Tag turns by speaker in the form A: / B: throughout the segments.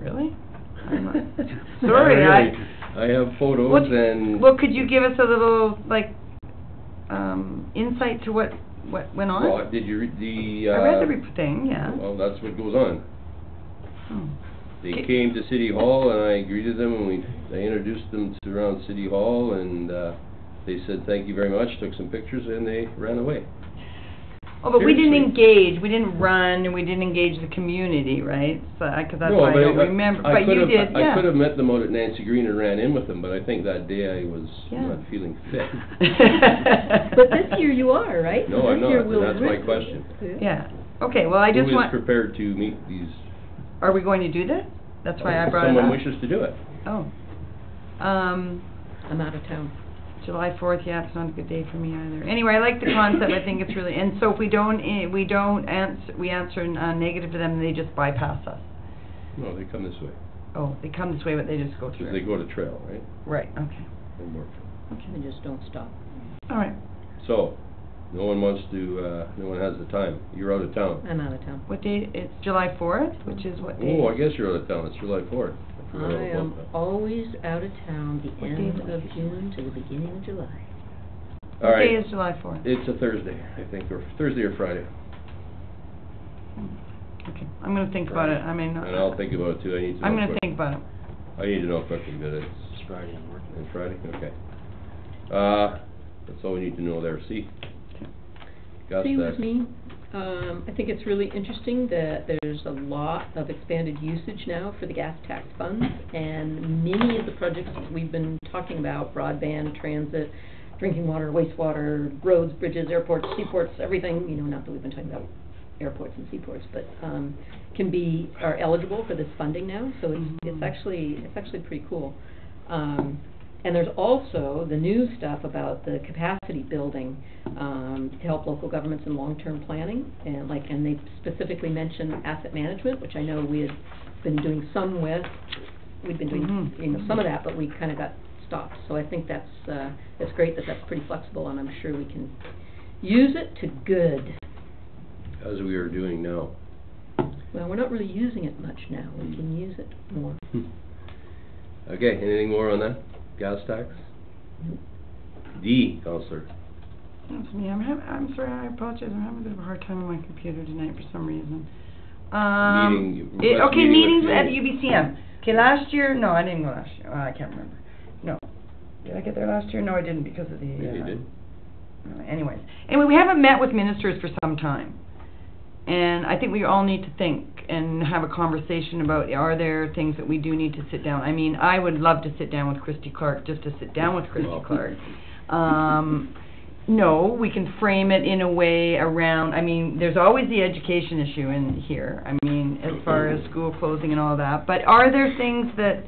A: Really? I'm, uh,
B: Sorry,
A: Sorry,
B: I,
A: I-
B: I have photos
A: What-
B: and.
A: Well, could you give us a little, like, um, insight to what, what went on?
B: Well, did you read the,
A: I
B: uh?
A: read the re- thing, yeah.
B: Well, that's what goes on.
A: Oh.
B: They
A: Okay.
B: came to City Hall and I greeted them and we, I introduced them to around City Hall and, uh, they said, thank you very much, took some pictures and they ran away.
A: Oh, but we didn't
B: Seriously.
A: engage, we didn't run, and we didn't engage the community, right? So, I, 'cause that's
B: No,
A: why I
B: but
A: don't remember,
B: I
A: but you
B: could've-
A: did,
B: I could
A: yeah.
B: have met them out at Nancy Green and ran in with them, but I think that day I was
A: Yeah.
B: not feeling fit.
C: But this year you are, right?
B: No, I'm
C: This year
B: not, and
C: we'll
B: that's my
C: risk-
B: question.
A: Yeah, okay, well, I just
B: Who is
A: want,
B: prepared to meet these?
A: are we going to do that? That's why I
B: if
A: brought it up.
B: Oh, Someone wishes to do it.
A: Oh. Um,
C: I'm out of town.
A: July fourth, yeah, it's not a good day for me either. Anyway, I like the concept, I think it's really, and so if we don't, eh, we don't ans- we answer n- uh, negative to them, they just bypass us.
B: No, they come this way,
A: Oh, they come this way, but they just go
B: because they
A: through.
B: go to trail, right?
A: Right, okay,
B: And work.
A: okay,
C: I just don't stop.
A: all right,
B: So, no one wants to, uh, no one has the time. You're out of town.
C: I'm out of town.
A: what day, it's July fourth, Uh, which is what day? Oh,
B: Oh, I guess you're out of town. It's July fourth.
C: I am
B: uh,
C: always out of town the
A: What day
C: end
A: is it?
C: of June to the beginning of July.
B: All
A: What day
B: right.
A: is July fourth?
B: It's a Thursday, I think, or Thursday or Friday.
A: Okay, I'm gonna think about it, I mean, uh,
B: And I'll think about it too. I need to know.
A: I'm gonna
B: quick-
A: think about it.
B: I need to know quickly that it's
D: It's Friday, I'm working.
B: on Friday, okay. Uh, that's all we need to know there. See? Got
C: See
B: that.
C: with me, um, I think it's really interesting that there's a lot of expanded usage now for the gas tax funds, and many of the projects that we've been talking about, broadband, transit, drinking water, wastewater, roads, bridges, airports, seaports, everything, you know, not that we've been talking about airports and seaports, but, um, can be, are eligible for this funding now, so it's, it's
A: Mhm.
C: actually, it's actually pretty cool. Um, and there's also the new stuff about the capacity building, um, to help local governments in long-term planning, and like, and they specifically mentioned asset management, which I know we had been doing some with, we've been doing,
A: Mhm.
C: you know, some of that, but we kind of got stopped, so I think that's, uh, it's great that that's pretty flexible, and I'm sure we can use it to good.
B: As we are doing now.
C: Well, we're not really using it much now, we can use it more.
B: Hmm. Okay, anything more on that? Gas tax? D, Counselor.
A: That's me, I'm hav- I'm sorry, I apologize, I'm having a bit of a hard time on my computer tonight for some reason. Um,
B: Meeting-
A: it-
B: request
A: okay,
B: meeting
A: meetings
B: with
A: at
B: you.
A: UBCM. Okay, last year, no, I didn't go last year, Uh, I can't remember. No. Did I get there last year? No, I didn't because of the,
B: Yeah, you
A: uh,
B: did.
A: uh, anyways. Anyway, we haven't met with ministers for some time. And I think we all need to think and have a conversation about, are there things that we do need to sit down? I mean, I would love to sit down with Christy Clark, just to sit down with Christy
B: Well.
A: Clark. Um, no, we can frame it in a way around, I mean, there's always the education issue in here. I mean, as far as school closing and all that, but are there things that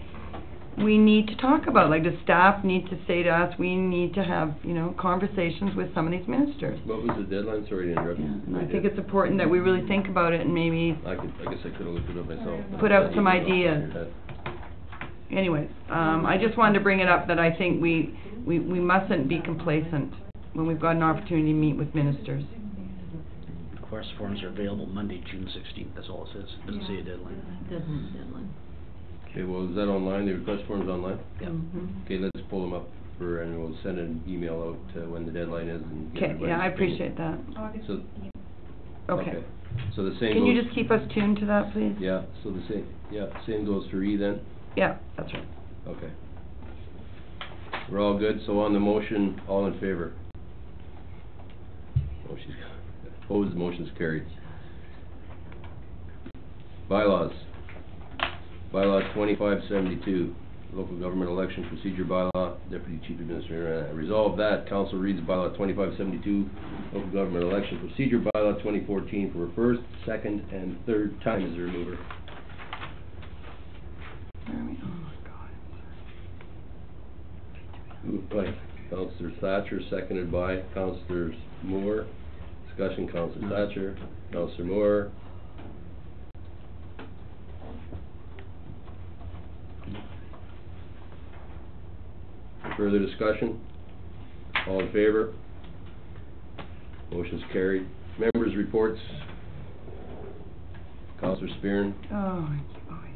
A: we need to talk about? Like, the staff need to say to us, we need to have, you know, conversations with some of these ministers?
B: What was the deadline? Sorry to interrupt.
A: Yeah,
B: you.
A: and
B: I
A: I think
B: did.
A: it's important that we really think about it and maybe,
B: I could, I guess I could've looked it up myself.
A: Put out some ideas. anyways, um, I just wanted to bring it up that I think we, we, we mustn't be complacent when we've got an opportunity to meet with ministers.
D: Request forms are available Monday, June sixteenth, that's all it says, doesn't say a deadline.
C: Doesn't have a deadline.
B: Okay, well, is that online? The request form's online?
D: Yeah.
C: Mhm.
B: Okay, let's pull them up for, and we'll send an email out uh, when the deadline is and. get
A: Okay, yeah, I
B: everybody's opinion.
A: appreciate that.
B: So,
A: Okay.
B: So the same
A: Can you
B: goes,
A: just keep us tuned to that, please?
B: yeah, so the same, yeah, same goes for E then?
A: Yeah, that's right.
B: Okay. We're all good, so on the motion, all in favor? Motion's, opposed, motion's carried. Bylaws. Bylaw twenty-five seventy-two, local government election procedure bylaw, deputy chief administrator, uh, resolve that, council reads bylaw twenty-five seventy-two, local government election procedure bylaw twenty fourteen for a first, second, and third time as a remover.
A: Where are we? Oh, my God.
B: Moved by Counselor Thatcher, seconded by Counselor Moore. Discussion, Counselor Thatcher, Counselor Moore. Further discussion? All in favor? Motion's carried. Members' reports. Counselor Spearn,
A: Oh, boy.